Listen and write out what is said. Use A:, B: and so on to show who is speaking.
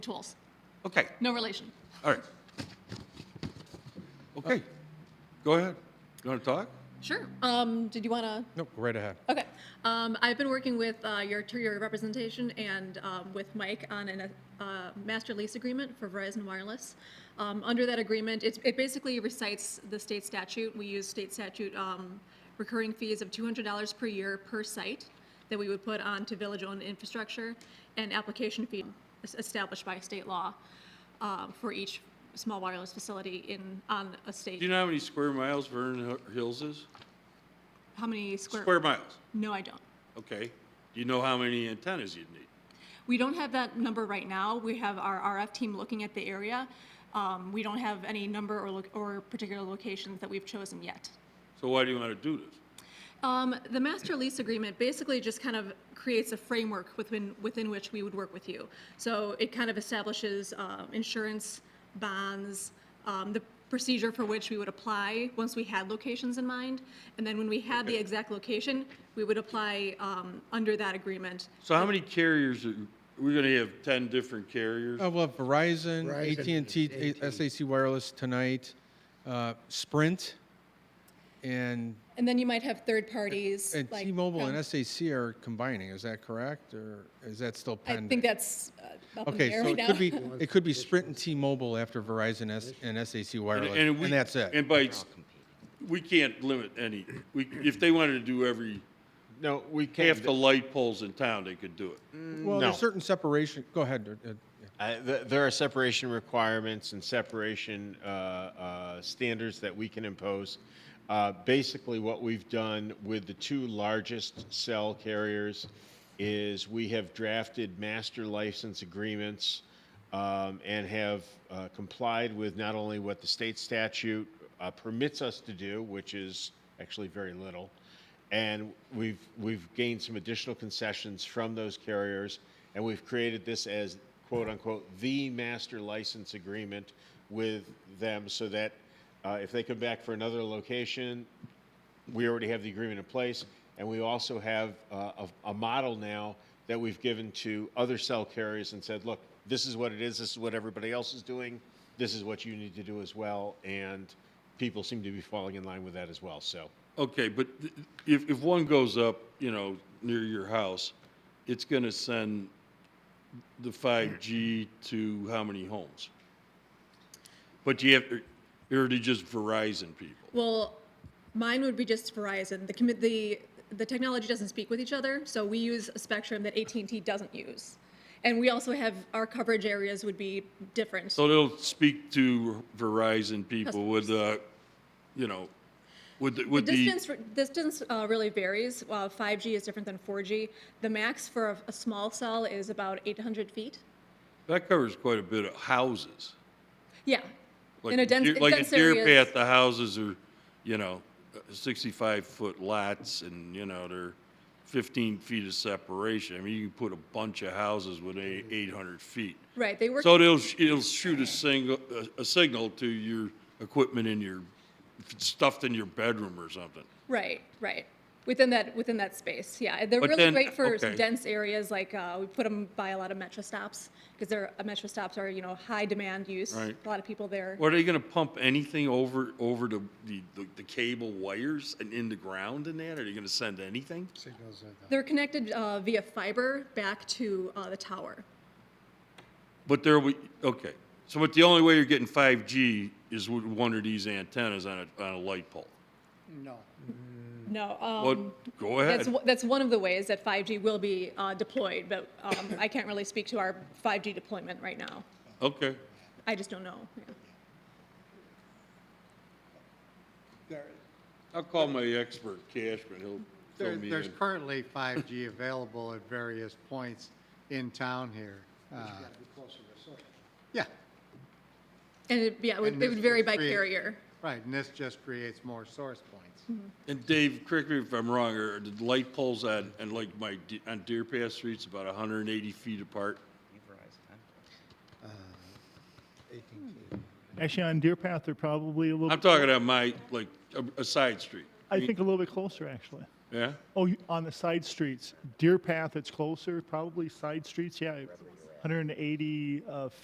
A: tools.
B: Okay,
A: No relation.
B: all right. Okay, go ahead. You want to talk?
A: Sure. Um, did you want to?
C: Nope, go right ahead.
A: Okay. Um, I've been working with uh, your through your representation and um, with Mike on a uh, master lease agreement for Verizon Wireless. Um, under that agreement, it's, it basically recites the state statute. We use state statute um, recurring fees of $200 per year per site that we would put onto village-owned infrastructure and application fee es- established by state law um, for each small wireless facility in on a state.
B: Do you know how many square miles Vernon Hi- Hills is?
A: How many square?
B: Square miles,
A: No, I don't.
B: okay. Do you know how many antennas you'd need?
A: We don't have that number right now. We have our RF team looking at the area. Um, we don't have any number or, loc- or particular locations that we've chosen yet.
B: So why do you want to do this?
A: Um, the master lease agreement basically just kind of creates a framework within, within which we would work with you. So it kind of establishes uh, insurance, bonds, um, the procedure for which we would apply once we had locations in mind. And then when we had the exact location, we would apply um, under that agreement.
B: So how many carriers, are we going to have 10 different carriers?
C: Uh, we'll have Verizon,
D: Verizon,
C: AT&T,
D: AT&T.
C: SAC Wireless tonight, uh, Sprint, and
A: And then you might have third parties.
C: and
A: like um,
C: T-Mobile
A: from-
C: and SAC are combining. Is that correct, or is that still
A: I
C: pending?
A: think that's uh, up in the
C: okay,
A: air
C: so
A: right
C: it
A: now.
C: could be it could be Sprint and T-Mobile after Verizon S- and SAC
B: And-
C: Wireless, and,
B: we-
C: that's it.
B: And by, s- we can't limit any, we, if they wanted to do every,
E: No, we can't.
B: half the light poles in town, they could do it.
C: well,
E: no.
C: there's certain separation. Go ahead. uh, uh, yeah.
E: I- th- there are separation requirements and separation uh, uh, standards that we can impose. Uh, basically, what we've done with the two largest cell carriers is we have drafted master license agreements um, and have uh, complied with not only what the state statute uh, permits us to do, which is actually very little, and we've we've gained some additional concessions from those carriers, and we've created this as quote unquote the master license agreement with them, so that uh, if they come back for another location, we already have the agreement in place, and we also have uh, a, a model now that we've given to other cell carriers and said, look, this is what it is, this is what everybody else is doing, this is what you need to do as well, and people seem to be falling in line with that as well. So.
B: Okay, but th- if, if one goes up, you know, near your house, it's going to send the 5G to how many homes? But you have, or to just Verizon people?
A: Well, mine would be just Verizon. The commi- the the technology doesn't speak with each other, so we use a spectrum that AT&T doesn't use. And we also have our coverage areas would be different.
B: So they'll speak to Verizon people with the, you know, with, the-
A: the
B: with the,
A: distance, distance uh, really varies. Uh, 5G is different than 4G. The max for a, a small cell is about 800 feet.
B: that covers quite a bit of houses.
A: Yeah.
B: Like
A: In a dense,
B: deer- Like a
A: dense
B: deer
A: areas-
B: path, the houses are, you know, sixty-five foot lots and, you know, they're fifteen feet of separation. I mean, you can put a bunch of houses with eight, eight hundred feet.
A: Right, they work.
B: So it'll, sh- it'll shoot a single, a, a signal to your equipment in your, if it's stuffed in your bedroom or something.
A: Right, right. Within that within that space, yeah. They're
B: But
A: really
B: then-
A: great for some
B: okay.
A: dense areas, like uh, we put them by a lot of metro stops because they're uh, metro stops are you know high demand use.
B: Right.
A: A lot of people there.
B: Or Are they gonna pump anything over, over the, the, the cable wires and in the ground and that? Are they gonna send anything?
D: Signals are the-
A: They're connected uh, via fiber back to uh, the tower.
B: But there we, okay, so but the only way you're getting five G is with one of these antennas on a, on a light pole.
D: No.
A: No. Um,
B: Well, go
A: That's,
B: ahead.
A: w- that's one of the ways that 5G will be uh, deployed, but um, I can't really speak to our 5G deployment right now.
B: Okay,
A: I just don't know. Yeah.
D: There-
B: I'll call my expert Cashman, he'll fill
D: there-
B: me
D: There's
B: in.
D: currently 5G available at various points in town here. Uh, Yeah,
A: And it, yeah, it would,
D: And
A: it would
D: this
A: vary
D: is
A: by
D: free.
A: carrier.
D: right, and this just creates more source points.
B: And Dave, correct me if I'm wrong, are the light poles on, and like my, de- on Deer Path Street's about hundred and eighty feet apart?
F: Actually, on Deer Path, they're probably a little.
B: I'm
F: bit
B: talking on my, like, a- a side street,
F: I think a little bit closer, actually.
B: yeah?
F: Oh, you- on the side streets, Deer Path, it's closer. Probably side streets, yeah. 180 uh,